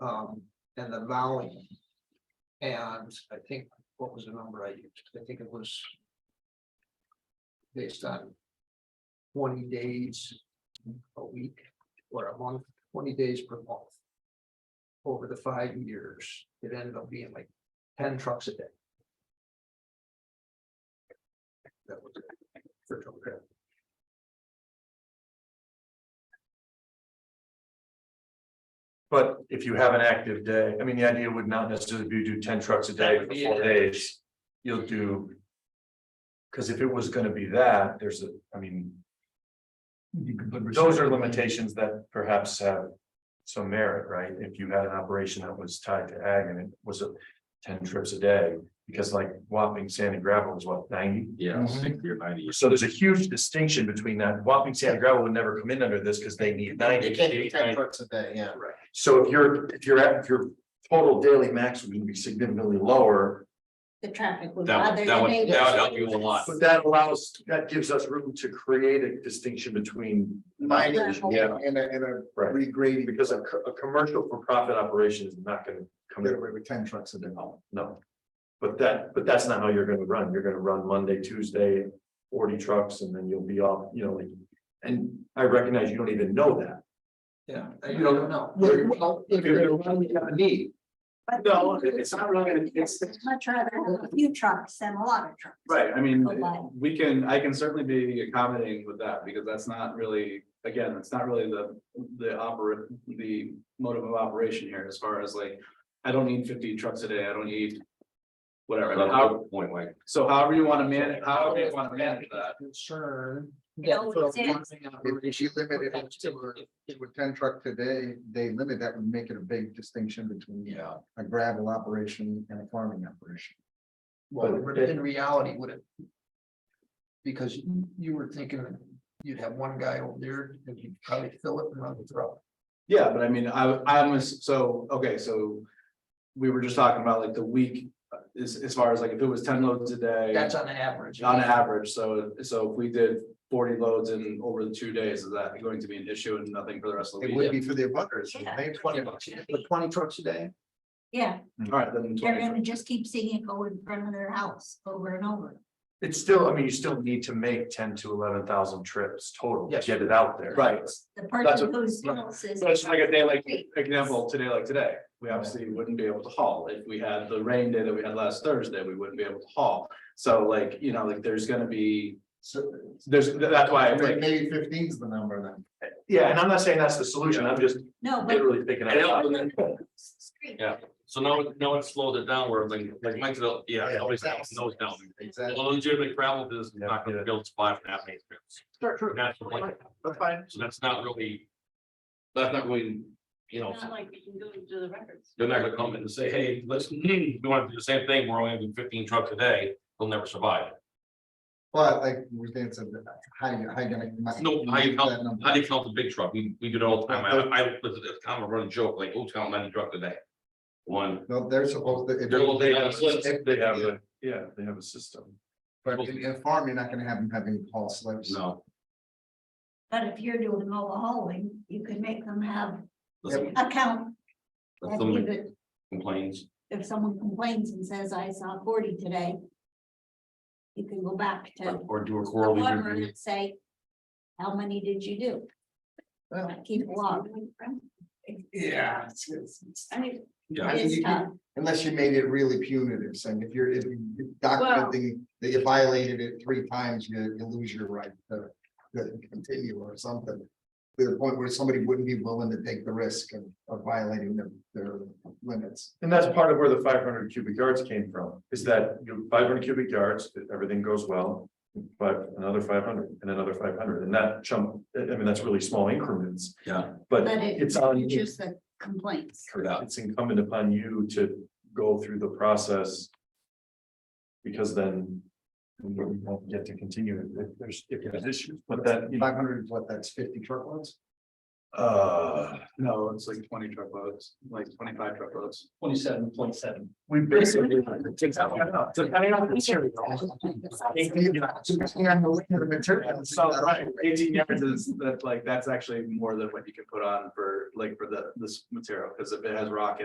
um, and the volume. And I think, what was the number I used? I think it was. Based on. Twenty days a week or a month, twenty days per month. Over the five years, it ended up being like ten trucks a day. That was. it for total traffic. But if you have an active day, I mean, the idea would not necessarily be to do ten trucks a day That would for be four it. days. You'll do. Cause if it was gonna be that, there's a, I mean, those are limitations that perhaps have. Some merit, right? If you had an operation that was tied to ag and it was a ten trips a day, because like Wapping Sand and Gravel is what, ninety? Yeah, Mhm. sixty or ninety. So there's a huge distinction between that. Wapping Sand and Gravel would never come in under this because they need ninety. It can't be ten trucks a day, yeah. Right. So if you're, if you're at, if your total daily max would be significantly lower, the traffic would That bother would, the that would, neighbors. that would help you a lot. but that allows, that gives us room to create a distinction between. Mining Yeah. and a, and a Right. regrading. Because a, co- a commercial for profit operation is not gonna come Get to, away with ten trucks a day. no. But that, but that's not how you're gonna run. You're gonna run Monday, Tuesday, forty trucks and then you'll be off, you know, like. And I recognize you don't even know that. Yeah, you don't know. Well, If you're running out of need. But No, it's not really gonna- it's- I'd Much rather have a few trucks than a lot of trucks. Right, I mean, A lot. we can, I can certainly be accommodating with that, because that's not really, again, it's not really the, the operate, the motive of operation here, as far as like, I don't need fifty trucks a day, I don't need whatever, That's a how- good Point like, so however you wanna manage, however you wanna manage that. Concern. It that always for is. running If you operations limit it potential- to a- With ten truck today, they limit, that would make it a big distinction between. uh, Yeah. A gravel operation and a farming operation. Well, in reality, would it? Because you- you were thinking you'd have one guy over there and you'd probably fill it and run the truck. Yeah, but I mean, I, I'm, ass- so, okay, so we were just talking about like the week, uh, as, as far as like, if it was ten loads a day. That's on average. On average, so, so if we did forty loads in over the two days, is that going to be an issue and nothing for the rest of the It week? would be for the abutters. Yeah. They- Twenty bucks, but twenty trucks a day, Yeah, Alright, then. they're 20. gonna just keep seeing it go in front of their house over and over. It's still, I mean, you still need to make ten to eleven thousand trips total to Yes. get it out there. Right, The That's person what- whose house is. so it's like a day like, example, today like today, we obviously wouldn't be able to haul, if we had the rain day that we had last Thursday, we wouldn't be able to haul. So like, you know, like there's gonna be, So there's, that's why, I'm like, maybe fifteen's the number then. Yeah, and I'm not saying that's the solution. I'm just No, but. literally picking I know, it and up. Street. yeah, so now, now it slowed it down where like, like Mike said, yeah, always exactly. knows down. Exactly. Well, legitimate gravel business is not gonna build five and a half acre. true. That's the point. That's fine. So that's not really. That's not really, you know, Not like we can go to the records. they're not gonna come in and say, hey, listen, we want to do the same thing, we're only doing fifteen trucks a day, they'll never survive. But like we did, so how you, how you gonna? No, how you help- that number? How do you count the big truck? We, we do it all the time. I, I, it's a kind of a running joke, like, oh, count ninety truck today. One, No, they're supposed to. if- They're- they have a list. if- They have, a- yeah, they have a system. But in in farm, you're not gonna have them having haul slips. no. But if you're doing all the hauling, you could make them have Listen, a count. if If you somebody could- complains, if someone complains and says, I saw forty today. You can go back to or do a quarterly whoever review. and say, how many did you do? Well, Keep log. Yeah. I mean, Yeah, I mean, It's uh, you tough. can- Unless you made it really punitive, saying if you're, if you documenting that you violated it three times, you, you lose your right to. To continue or something, to the point where somebody wouldn't be willing to take the risk of, of violating their, their limits. And that's part of where the five hundred cubic yards came from, is that you five hundred cubic yards, if everything goes well. But another five hundred and another five hundred, and that chunk, e, I I mean, that's really small increments, yeah, but But it- it's on, Just the complaints. yeah. it's incumbent upon you to go through the process. Because then we won't get to continue if there's, if there's issues, but that, you know, Five hundred is what, that's fifty truckloads? Uh, No, it's like twenty truckloads, like twenty-five truckloads. twenty-seven point seven. we basically. Depending on the material. So, right, eighteen yards is, that like, that's actually more than what you can put on for, like, for the, this material, because if it has rock in